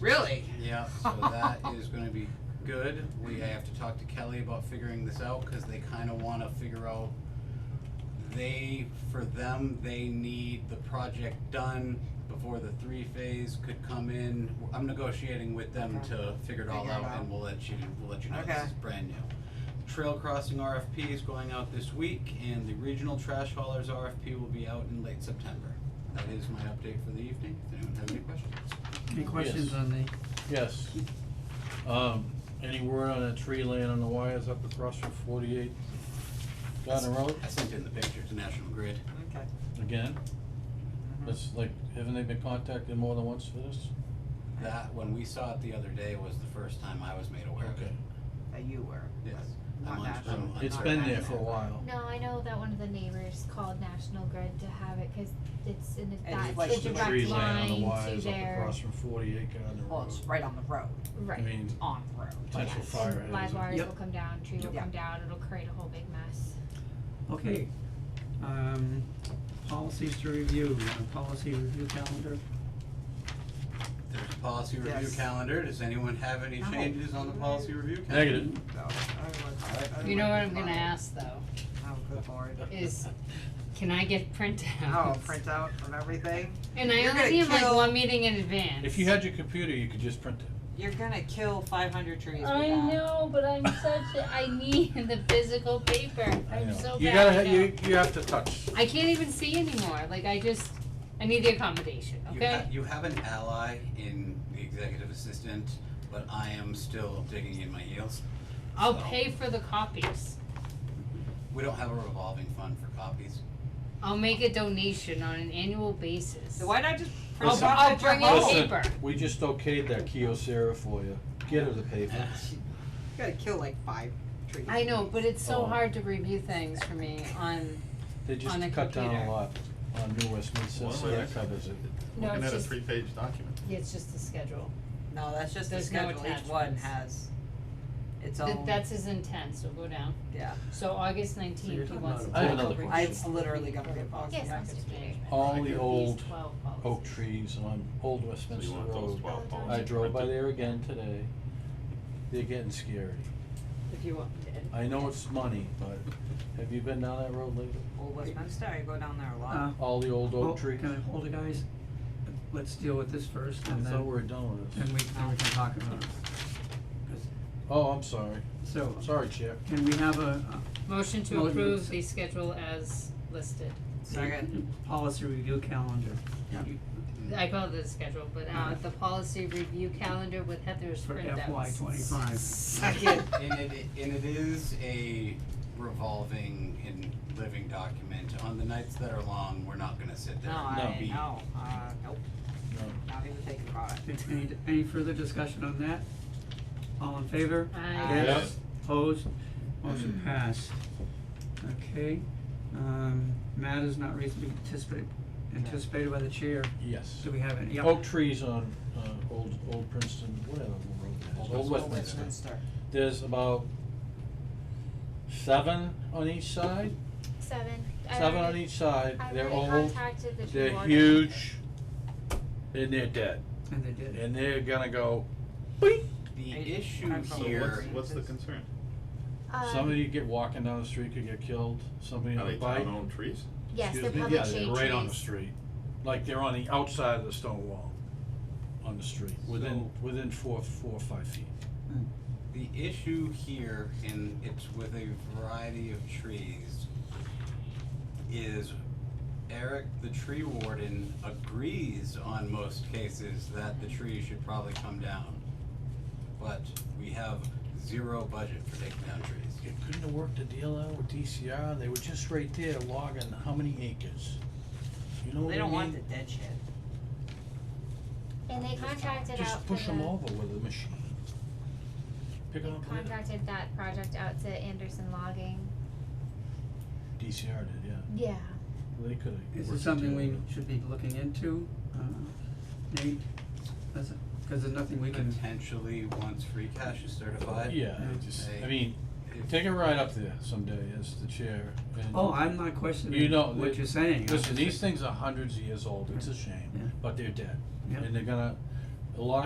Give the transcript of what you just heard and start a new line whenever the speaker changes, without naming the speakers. Really?
Yeah, so that is gonna be good. We have to talk to Kelly about figuring this out, cause they kinda wanna figure out, they, for them, they need the project done before the three phase could come in. I'm negotiating with them
Okay.
to figure it all
Figure
out
it out.
and we'll let you, we'll let you know this
Okay.
is brand new. Trail crossing RFP is going out this week and the regional trash haulers RFP will be out in late September. That is my update for the evening, if anyone has any questions.
Any questions
Yes.
on the,
Yes. Um, any word on that tree laying on the wires up across from forty-eight Garden Road?
I sent in the picture to National Grid.
Okay. Mm-hmm.
Again? That's like, haven't they been contacted more than once for this?
That, when we saw it the other day, was the first time I was made aware of it.
Okay.
That you were.
Yes.
but
I'm
Not
on-
national.
I'm-
It's
not
been there
national.
for a while.
No, I know that one of the neighbors called National Grid to have it, cause it's in
it's
a, that's
like
the
Just
the
direct
tree laying on the
line to
wires up
their,
across from forty-eight Garden
Well,
Road.
it's right Oh, on the road,
I
right,
mean,
on the road.
potential
yes,
fire hazard.
live wires
Yep.
will come down, tree will
Yeah.
come down, it'll create a whole big mess.
okay, um, policies to review, uh, policy review calendar,
There's a policy review
Yes.
calendar. Does anyone have any
No.
changes on the policy review calendar?
Negative.
No, I would- I would
You know what I'm
decline.
gonna ask though,
Oh, good lord.
is can I get printouts?
Oh, printout from everything?
And I
You're
only
gonna
need like
kill-
one meeting in advance.
If you had your computer, you could just print it.
You're gonna kill five hundred trees with
I
that.
know, but I'm such a, I need the physical paper, I'm so bad.
You gotta,
at
ha- you,
that.
you have to touch.
I can't even see anymore, like I just, I need the accommodation,
You
okay?
ha- You have an ally in the executive assistant, but I am still digging in my heels.
I'll
so-
pay for the copies,
We don't have a revolving fund for copies.
I'll make a donation on an annual basis.
So why not just print
I'll,
it
Listen,
off
I'll
at your
bring
home?
in
Listen.
paper.
We just okayed that Kyocera for you. Get her the paper.
You gotta kill like five trees.
I know, but it's so
Oh.
hard to review things for me on,
They just
On a
cut down a
computer.
lot on New Westminster,
Well,
so
yeah.
that covers it.
no,
Looking
it's
at a
just,
three-page document.
yeah, it's just the schedule.
No, that's just the
There's no
schedule, each one
attachments.
has its
Th-
own,
that's his intent, so go down.
yeah,
So August nineteenth, he wants.
I have another
to-
question.
I- it's literally gonna be a policy
Yes,
package.
Mr. Peter.
All the
These
old
These twelve policies.
oak trees on Old
So you
Westminster
want those
Road.
twelve
I
policies
I drove by
printed?
there again today. They're getting scary.
If you want,
I know it's money, but have you been down that road lately?
Old Westminster, I go down there a lot.
uh,
Oh.
All the old oak
hold-
trees?
can I hold it, guys? Let's deal with this first
I
and
thought we
then,
were done with
and
this.
we, then we can talk about it. 'Cause-
Oh, I'm sorry.
So,
Sorry, Chair.
can we have a,
motion to
Motion.
approve the schedule as listed.
a
Second,
policy review calendar? You-
Mm.
I call it the schedule, but uh, the policy review calendar with Heather's
For
printouts.
FY twenty-five.
second,
And it, and it is a revolving and living document. On the nights that are long, we're not gonna sit
no,
there
I,
and be
no, uh, nope,
No.
not even thinking about it.
Any, any further discussion on that? All in favor?
I,
Yes.
Yeah.
Opposed? Motion passed. Okay, um, matters not reasonably anticipated, anticipated by the chair.
Yes.
Do we have any? Yep.
Oak trees on, uh, old, old Princeton, whatever road that is, Old Westminster.
Westminster.
There's about seven on each side,
Seven, I
seven on
already,
each side.
I
They're
already
old,
contacted the tree
they're
warden.
huge, and they're dead.
And they did.
And they're gonna go,
The
Eight-
issue
I'm
So
probably
here,
what's, what's the concern?
Um,
somebody get walking down the street could get killed, somebody
Are
on
they
a bike.
town-owned trees?
yes, they're
Excuse me?
public
Yeah,
shade
they're right on the
trees.
street, like they're on the outside of the stone wall, on the street, within, within four, four or five feet.
the issue here, and it's with a variety of trees, is Eric, the tree warden, agrees on most cases that the tree should probably come down. But we have zero budget for taking down trees.
You couldn't have worked a deal out with DCR, they were just right there logging how many acres, you know what I
They don't want the
mean?
dead shit.
And they contracted out
Just
for
push them
the,
over with a machine. Pick
they
them up with
contracted that project out to Anderson Logging.
DCR did, yeah,
Yeah.
they could have.
Is this something we should be looking into, uh, Nate? That's, it. cause there's nothing we can,
Potentially, once free cash is certified.
Yeah,
Yeah.
I just, I
Hey.
mean, take a ride up there someday as the chair and.
oh, I'm not
You
questioning
know,
what
the-
you're saying. I'm
Listen,
just
these
saying-
things are hundreds of years old, it's a
Yeah.
shame, but they're dead.
Yeah.
And they're gonna, a lot